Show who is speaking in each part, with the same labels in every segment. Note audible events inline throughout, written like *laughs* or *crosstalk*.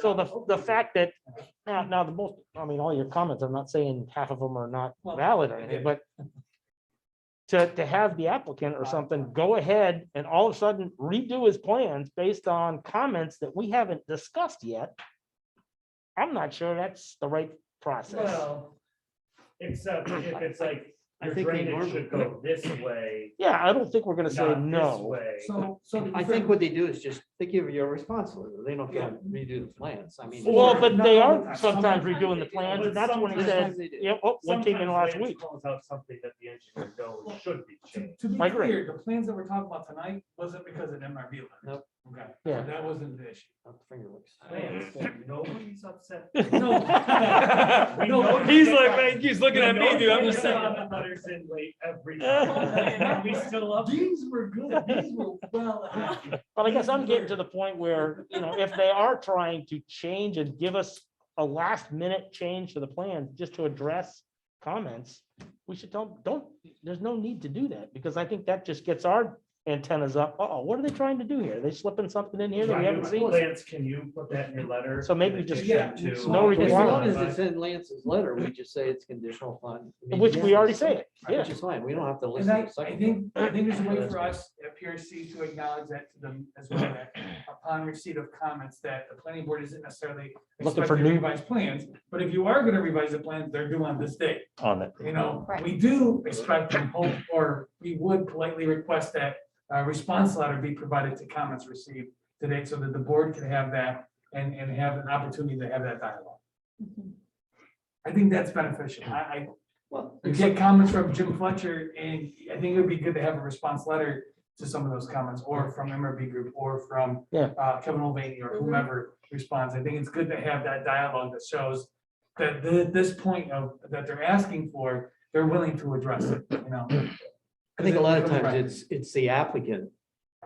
Speaker 1: So the, the fact that, now, now the most, I mean, all your comments, I'm not saying half of them are not
Speaker 2: Well,
Speaker 1: valid or
Speaker 2: I
Speaker 1: anything,
Speaker 2: did.
Speaker 1: but to, to have the applicant or something go ahead and all of a sudden redo his plans based on comments that we haven't discussed yet. I'm not sure that's the right process.
Speaker 2: Well,
Speaker 3: Except if it's like,
Speaker 4: I
Speaker 3: your
Speaker 4: think we
Speaker 3: drainage should
Speaker 4: normally-
Speaker 3: go this way,
Speaker 1: Yeah, I don't think we're gonna say
Speaker 3: not this
Speaker 1: no.
Speaker 3: way.
Speaker 2: so, so. to be
Speaker 4: I
Speaker 2: fair-
Speaker 4: think what they do is just, they give you a response, letter. they don't have to redo the plans, I mean.
Speaker 1: Well, but they
Speaker 2: No,
Speaker 1: are sometimes
Speaker 2: sometimes
Speaker 1: redoing
Speaker 3: they
Speaker 1: the
Speaker 3: do,
Speaker 1: plans,
Speaker 3: but
Speaker 1: and that's when he
Speaker 4: Sometimes
Speaker 1: says,
Speaker 4: they do.
Speaker 1: yeah, oh, one came in
Speaker 3: Sometimes
Speaker 1: last
Speaker 3: Lance
Speaker 1: week.
Speaker 3: Calls out something that the engineer knows should be
Speaker 2: To
Speaker 3: changed.
Speaker 2: to be
Speaker 1: I agree.
Speaker 2: clear, the plans that we're talking about tonight wasn't because of MRV. letter.
Speaker 4: Nope.
Speaker 2: Okay.
Speaker 1: Yeah.
Speaker 2: That wasn't the issue.
Speaker 4: Not the finger licks.
Speaker 3: Lance, nobody's
Speaker 1: *laughs*
Speaker 3: upset.
Speaker 5: *laughs*
Speaker 2: No.
Speaker 3: We
Speaker 2: No,
Speaker 3: know
Speaker 2: but-
Speaker 3: he's like,
Speaker 2: man,
Speaker 5: he's
Speaker 3: Letters in late
Speaker 1: *laughs*
Speaker 3: every time, and we still love.
Speaker 2: These were good, these were well.
Speaker 1: But I guess I'm getting to the point where, you know, if they are trying to change and give us a last minute change to the plan, just to address comments, we should don't, don't, there's no need to do that, because I think that just gets our antennas up. Uh-oh, what are they trying to do here? Are they slipping something in here that we haven't seen?
Speaker 3: Lance, can you put that in your letter?
Speaker 1: So maybe just-
Speaker 3: Condition to-
Speaker 1: No
Speaker 4: As long
Speaker 1: requirement.
Speaker 4: as it's in Lance's letter, we just say it's conditional upon.
Speaker 1: Which we already say it, yeah.
Speaker 4: Which is fine, we don't have to
Speaker 2: And
Speaker 4: listen to
Speaker 2: I,
Speaker 4: the
Speaker 2: I
Speaker 4: second. one.
Speaker 2: think, I think there's a way for us at PRC to acknowledge that to them as well, that upon receipt of comments that the planning board isn't necessarily
Speaker 1: Looking for
Speaker 2: expecting
Speaker 1: new-
Speaker 2: revised plans, but if you are gonna revise the plans, they're due on this date.
Speaker 1: On it.
Speaker 2: You know, we do expect and hope, or we would politely request that a response letter be provided to comments received today so that the board can have that and, and have an opportunity to have that dialogue. I think that's beneficial. I, I,
Speaker 4: Well,
Speaker 2: you get comments from Jim Fletcher, and I think it would be good to have a response letter to some of those comments, or from MRB Group, or from
Speaker 1: Yeah.
Speaker 2: uh, Kevin Mulvaney, or whomever responds. I think it's good to have that dialogue that shows that the, this point of, that they're asking for, they're willing to address it, you know?
Speaker 4: I think a lot of times it's, it's the applicant,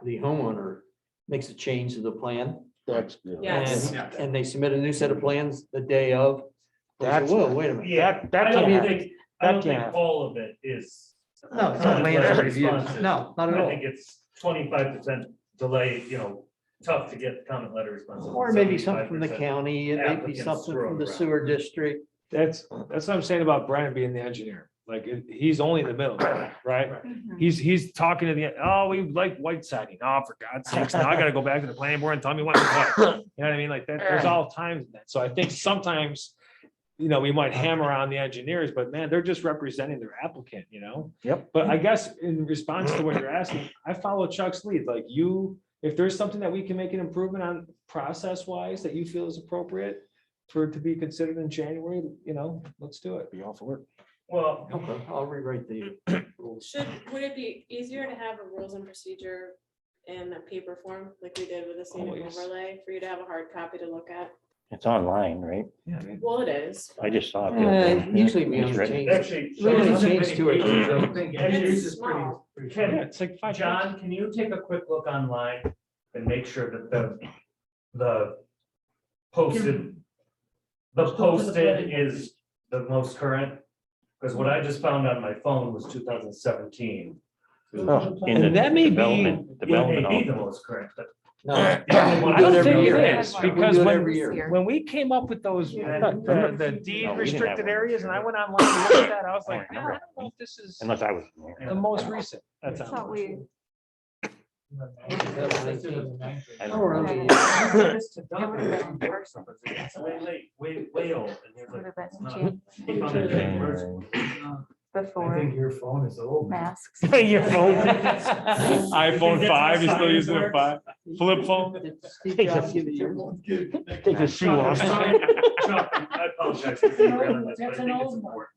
Speaker 4: the homeowner makes a change to the plan.
Speaker 6: Yes.
Speaker 4: And, and they submit a new set of plans the day of. They say,
Speaker 1: That's-
Speaker 4: Whoa, wait a minute.
Speaker 3: Yeah,
Speaker 1: That- that
Speaker 3: I don't
Speaker 1: can't
Speaker 3: think, I don't
Speaker 1: That can't
Speaker 3: think
Speaker 1: happen.
Speaker 3: all of it is.
Speaker 4: No, it's not Lance's review. No, not at
Speaker 3: I
Speaker 4: all.
Speaker 3: think it's twenty-five percent delay, you know, tough to get comment letter responses.
Speaker 4: Or maybe something from the
Speaker 3: 75%
Speaker 4: county, it may be
Speaker 3: applicants
Speaker 4: something from
Speaker 3: thrown
Speaker 4: the
Speaker 3: around.
Speaker 4: sewer district.
Speaker 5: That's, that's what I'm saying about Brian being the engineer. Like, it- he's only in the middle, right?
Speaker 7: Mm-hmm.
Speaker 5: He's, he's talking to the, oh, we like white siding. Oh, for God's sakes, now I gotta go back to the planning board and tell me what. what." You know what I mean? Like that, there's all times in that. So I think sometimes, you know, we might hammer on the engineers, but man, they're just representing their applicant, you know?
Speaker 1: Yep.
Speaker 5: But I guess in response to what you're asking, I follow Chuck's lead. Like you, if there's something that we can make an improvement on process wise that you feel is appropriate for it to be considered in January, you know, let's do it.
Speaker 1: Be all for it.
Speaker 3: Well,
Speaker 4: Okay, I'll rewrite the rules.
Speaker 6: Should, would it be easier to have a rules and procedure in a paper form, like we did with the scenic
Speaker 5: Always.
Speaker 6: overlay, for you to have a hard copy to look at?
Speaker 8: It's online, right?
Speaker 5: Yeah, man.
Speaker 6: Well, it is.
Speaker 8: I just saw it. the other
Speaker 4: Uh,
Speaker 8: day.
Speaker 4: Usually we
Speaker 8: It's
Speaker 4: only
Speaker 8: written.
Speaker 4: change.
Speaker 3: actually,
Speaker 4: We're gonna
Speaker 3: Sean-
Speaker 4: change to it.
Speaker 2: Yours is pretty.
Speaker 6: small.
Speaker 2: pretty short.
Speaker 3: Ken,
Speaker 5: Yeah, it's like five. minutes.
Speaker 3: John, can you take a quick look online and make sure that the, the posted, the posted is the most current? Because what I just found on my phone was two thousand seventeen.
Speaker 8: Oh, in
Speaker 5: And
Speaker 8: the
Speaker 5: that may be-
Speaker 8: development-
Speaker 3: It may
Speaker 8: development
Speaker 3: be
Speaker 8: office.
Speaker 3: the most current, but
Speaker 4: No,
Speaker 5: I
Speaker 4: do it
Speaker 5: don't
Speaker 4: every
Speaker 5: think
Speaker 4: year.
Speaker 5: it is,
Speaker 4: We
Speaker 5: because
Speaker 4: do it
Speaker 5: when,
Speaker 4: every year.
Speaker 5: when we came up with those, the the deed
Speaker 8: No, we didn't have
Speaker 5: restricted
Speaker 8: one.
Speaker 5: areas, and I went online and looked at that, I was
Speaker 8: I
Speaker 5: like, "No, I
Speaker 8: remember.
Speaker 5: don't know if this is *laughs*
Speaker 8: Unless I was. in there.
Speaker 5: the most recent. That's
Speaker 7: It's not
Speaker 5: how.
Speaker 7: weird.
Speaker 8: I
Speaker 4: Oh, we're on
Speaker 8: don't know.
Speaker 4: the-
Speaker 3: *laughs* it's way late, way, way old. and they're
Speaker 7: Would
Speaker 3: like,
Speaker 7: have been
Speaker 3: it's
Speaker 7: in
Speaker 3: not. They found it in words.
Speaker 8: January.
Speaker 2: I
Speaker 7: Before
Speaker 2: think your phone is old.
Speaker 7: masks.
Speaker 1: Your phone.
Speaker 8: *laughs*
Speaker 3: iPhone five, you're still using a five?
Speaker 5: flip phone.
Speaker 4: Did Steve Jobs give it your-
Speaker 1: Take a shoe off.
Speaker 4: *laughs*
Speaker 3: Chuck, I apologize. for being real on this, but I think it's important,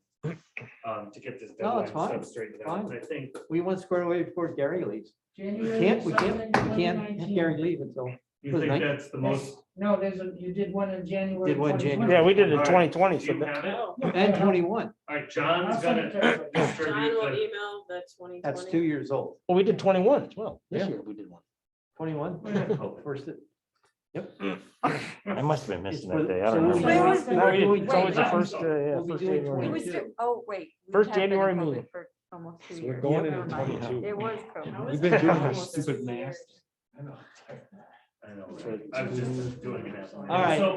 Speaker 3: Um, to get this
Speaker 4: No,
Speaker 3: deadline
Speaker 4: it's fine.
Speaker 3: stuff straightened out,
Speaker 4: Fine.
Speaker 3: I think,
Speaker 4: We want squared away before Gary leaves. We can't, we can't, we can't have Gary leave until,
Speaker 3: you
Speaker 4: Was it
Speaker 3: think
Speaker 4: nine-
Speaker 3: that's the most.
Speaker 9: No, there's a, you did one in January.
Speaker 4: Did one in January.
Speaker 1: Yeah, we did
Speaker 3: All
Speaker 1: it
Speaker 3: right,
Speaker 1: in twenty twenty,
Speaker 3: do
Speaker 1: so
Speaker 3: you
Speaker 1: that-
Speaker 3: have it? All
Speaker 4: and twenty-one,
Speaker 3: right, John's *coughs* gonna
Speaker 6: John
Speaker 3: distribute
Speaker 6: will
Speaker 3: the,
Speaker 6: email the twenty
Speaker 4: that's two
Speaker 6: twenty.
Speaker 4: years old.
Speaker 1: well, we did twenty-one as well. This
Speaker 4: Yeah.
Speaker 1: year we did one.
Speaker 4: Twenty-one, Oh, first. it-
Speaker 8: I must have been
Speaker 4: it's
Speaker 8: missing
Speaker 4: for
Speaker 8: that
Speaker 4: the-
Speaker 8: day. I
Speaker 4: so
Speaker 8: don't
Speaker 4: we'll be
Speaker 8: remember.
Speaker 4: doing-
Speaker 7: Wait,
Speaker 1: No,
Speaker 4: we'll
Speaker 7: wait,
Speaker 4: be
Speaker 1: we didn't.
Speaker 4: doing
Speaker 1: It's always the
Speaker 4: 22.
Speaker 1: first, uh, yeah,
Speaker 4: We'll be
Speaker 1: first
Speaker 4: doing
Speaker 1: January.
Speaker 7: It
Speaker 4: 20.
Speaker 7: was, ju- oh, wait. we
Speaker 1: First
Speaker 7: have been in
Speaker 1: January
Speaker 7: COVID
Speaker 1: meeting.
Speaker 7: For almost two
Speaker 5: So we're
Speaker 7: years.
Speaker 5: going
Speaker 7: Never
Speaker 5: into
Speaker 7: mind. It
Speaker 5: twenty-two.
Speaker 7: was
Speaker 6: How
Speaker 7: COVID.
Speaker 6: is
Speaker 5: We've been
Speaker 6: that
Speaker 5: doing
Speaker 6: almost
Speaker 5: this stupid
Speaker 6: six
Speaker 5: math.
Speaker 6: years? e-
Speaker 3: I know, right? I was just doing it.
Speaker 4: All right.
Speaker 3: So